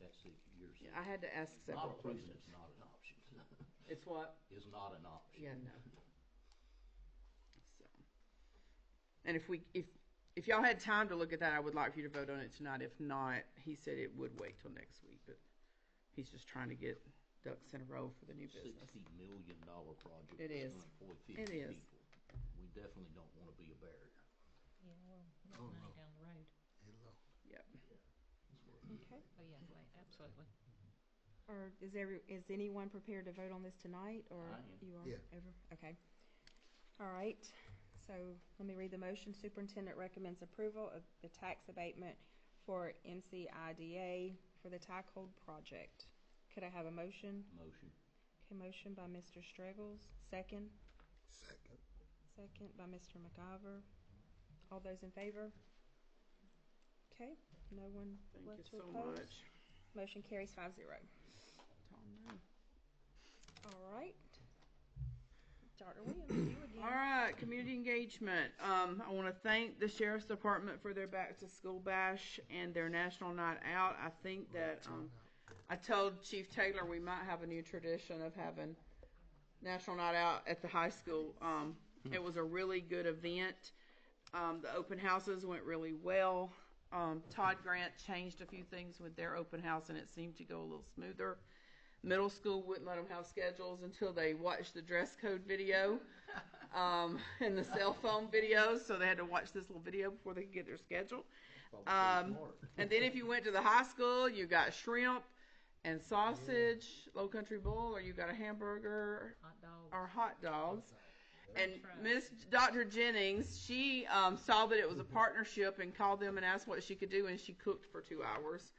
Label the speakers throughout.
Speaker 1: Mike said years ago.
Speaker 2: I had to ask
Speaker 1: Not
Speaker 2: several
Speaker 1: approving
Speaker 2: questions.
Speaker 1: is not an option,
Speaker 2: It's what?
Speaker 1: is not an option.
Speaker 2: Yeah, no. So, and if we, if, if y'all had time to look at that, I would like for you to vote on it tonight. If not, he said it would wait till next week, but he's just trying to get ducks in a row for the new business.
Speaker 1: Sixty million dollar project.
Speaker 2: It
Speaker 1: that's
Speaker 2: is.
Speaker 1: gonna employ
Speaker 2: It
Speaker 1: 50
Speaker 2: is.
Speaker 1: people. We definitely don't wanna be a barrier.
Speaker 3: Yeah, well, that's
Speaker 4: Oh,
Speaker 3: money
Speaker 4: no.
Speaker 3: down the road.
Speaker 4: Hello.
Speaker 2: Yep. Mm-hmm.
Speaker 5: Okay.
Speaker 3: Oh, yeah, wait, absolutely.
Speaker 5: Or is every, is anyone prepared to vote on this tonight, or?
Speaker 1: I am.
Speaker 5: You are?
Speaker 4: Yeah.
Speaker 5: Every- Okay. All right, so let me read the motion. Superintendent recommends approval of the tax abatement for MCIDA for the Tycold project. Could I have a motion?
Speaker 1: Motion.
Speaker 5: Okay, motion by Mr. Streggles, second,
Speaker 4: Second.
Speaker 5: second by Mr. McIver. All those in favor? Okay, no one
Speaker 2: Thank you
Speaker 5: left to
Speaker 2: so
Speaker 5: oppose?
Speaker 2: much.
Speaker 5: Motion carries five zero.
Speaker 2: Don't know.
Speaker 5: All right. Dr. Williams, you again.
Speaker 2: All right, community engagement. Um, I want to thank the sheriff's department for their back to school bash and their national night out. I think that um, I told Chief Taylor we might have a new tradition of having national night out at the high school. Um, it was a really good event. Um, the open houses went really well. Um, Todd Grant changed a few things with their open house, and it seemed to go a little smoother. Middle school wouldn't let them have schedules until they watched the dress code video um, and the cell phone videos, so they had to watch this little video before they could get their schedule. Um, and then if you went to the high school, you got shrimp and sausage, low country bowl, or you got a hamburger
Speaker 3: Hot dog.
Speaker 2: or hot dogs. And
Speaker 3: That's right.
Speaker 2: Miss Dr. Jennings, she um, saw that it was a partnership and called them and asked what she could do, and she cooked for two hours.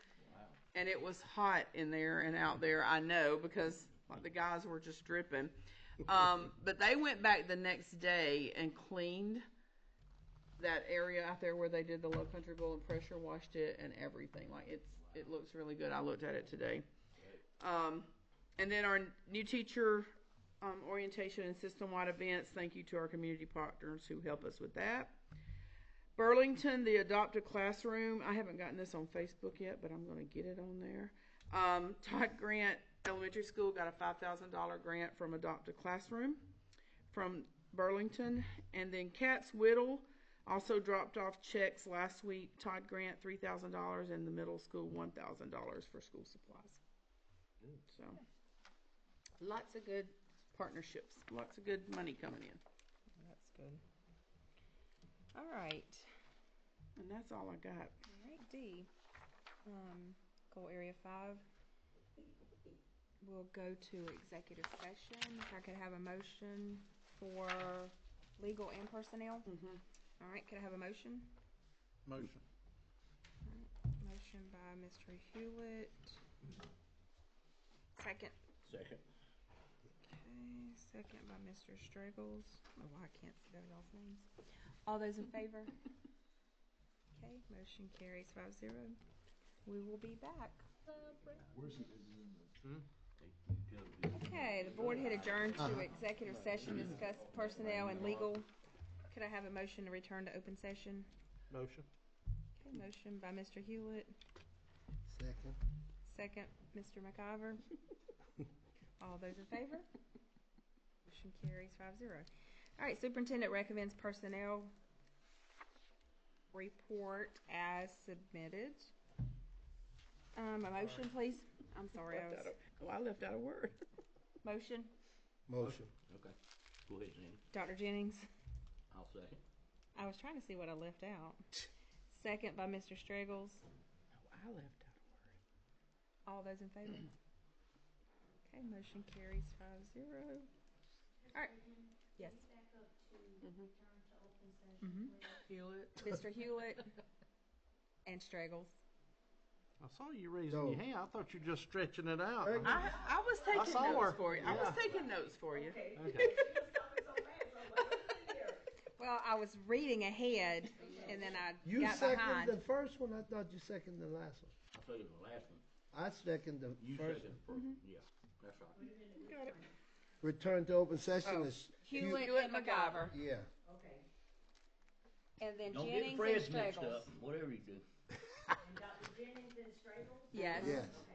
Speaker 2: And it was hot in there and out there, I know, because like the guys were just dripping. Um, but they went back the next day and cleaned that area out there where they did the low country bowl and pressure washed it and everything. Like it's it looks really good. I looked at it today. Um, and then our new teacher um, orientation and system-wide events. Thank you to our community partners who help us with that. Burlington, the Adopt a Classroom. I haven't gotten this on Facebook yet, but I'm going to get it on there. Um, Todd Grant Elementary School got a $5,000 grant from Adopt a Classroom from Burlington. And then Katz Whittle also dropped off checks last week. Todd Grant, $3,000, and the middle school, $1,000 for school supplies. So lots of good partnerships, lots of good money coming in.
Speaker 5: That's good. All right.
Speaker 2: And that's all I got.
Speaker 5: All right, D. Um, goal area five. We'll go to executive session. If I could have a motion for legal and personnel.
Speaker 2: Mm-hmm.
Speaker 5: All right, could I have a motion?
Speaker 4: Motion.
Speaker 5: Motion by Mr. Hewlett. Second.
Speaker 1: Second.
Speaker 5: Okay, second by Mr. Straggles. Oh, I can't spell y'all's names. All those in favor? Okay, motion carries five zero. We will be back. Okay, the board had adjourned to executive session, to discuss personnel and legal. Could I have a motion to return to open session?
Speaker 4: Motion.
Speaker 5: Okay, motion by Mr. Hewlett,
Speaker 4: Second.
Speaker 5: second, Mr. McIver. All those in favor? Motion carries five zero. All right, superintendent recommends personnel report as submitted. Um, a motion, please? I'm sorry, I was,
Speaker 2: oh, I left out a word.
Speaker 5: motion,
Speaker 4: Motion.
Speaker 1: Okay. Go ahead, Sandy.
Speaker 5: Dr. Jennings?
Speaker 1: I'll second.
Speaker 5: I was trying to see what I left out. Second by Mr. Straggles.
Speaker 2: Oh, I left out a word.
Speaker 5: All those in favor? Okay, motion carries five zero. All right. Yes. Mhm.
Speaker 2: Hewlett.
Speaker 5: Mr. Hewlett and Straggles.
Speaker 6: I saw you raising your
Speaker 4: No.
Speaker 6: hand. I thought you were just stretching it out.
Speaker 4: Very good.
Speaker 2: I, I was taking
Speaker 6: saw
Speaker 2: notes
Speaker 6: her.
Speaker 2: for you. I was
Speaker 6: Yeah.
Speaker 2: taking notes for you.
Speaker 6: Okay.
Speaker 5: Well, I was reading ahead and then I
Speaker 4: You
Speaker 5: got
Speaker 4: second the
Speaker 5: behind.
Speaker 4: first one, I thought you seconded the last one.
Speaker 1: I second the last one.
Speaker 4: I second the
Speaker 1: You
Speaker 4: first.
Speaker 1: second the first
Speaker 2: Mm-hmm.
Speaker 1: one. Yeah, that's right.
Speaker 5: Got it.
Speaker 4: Return to open session
Speaker 2: Oh.
Speaker 4: is.
Speaker 5: Hewlett and McGover.
Speaker 4: Yeah.
Speaker 5: And then
Speaker 1: Don't get
Speaker 5: Jennings and
Speaker 1: Fred's mixed up,
Speaker 5: Straggles.
Speaker 1: whatever you do.
Speaker 5: Yes.
Speaker 4: Yes.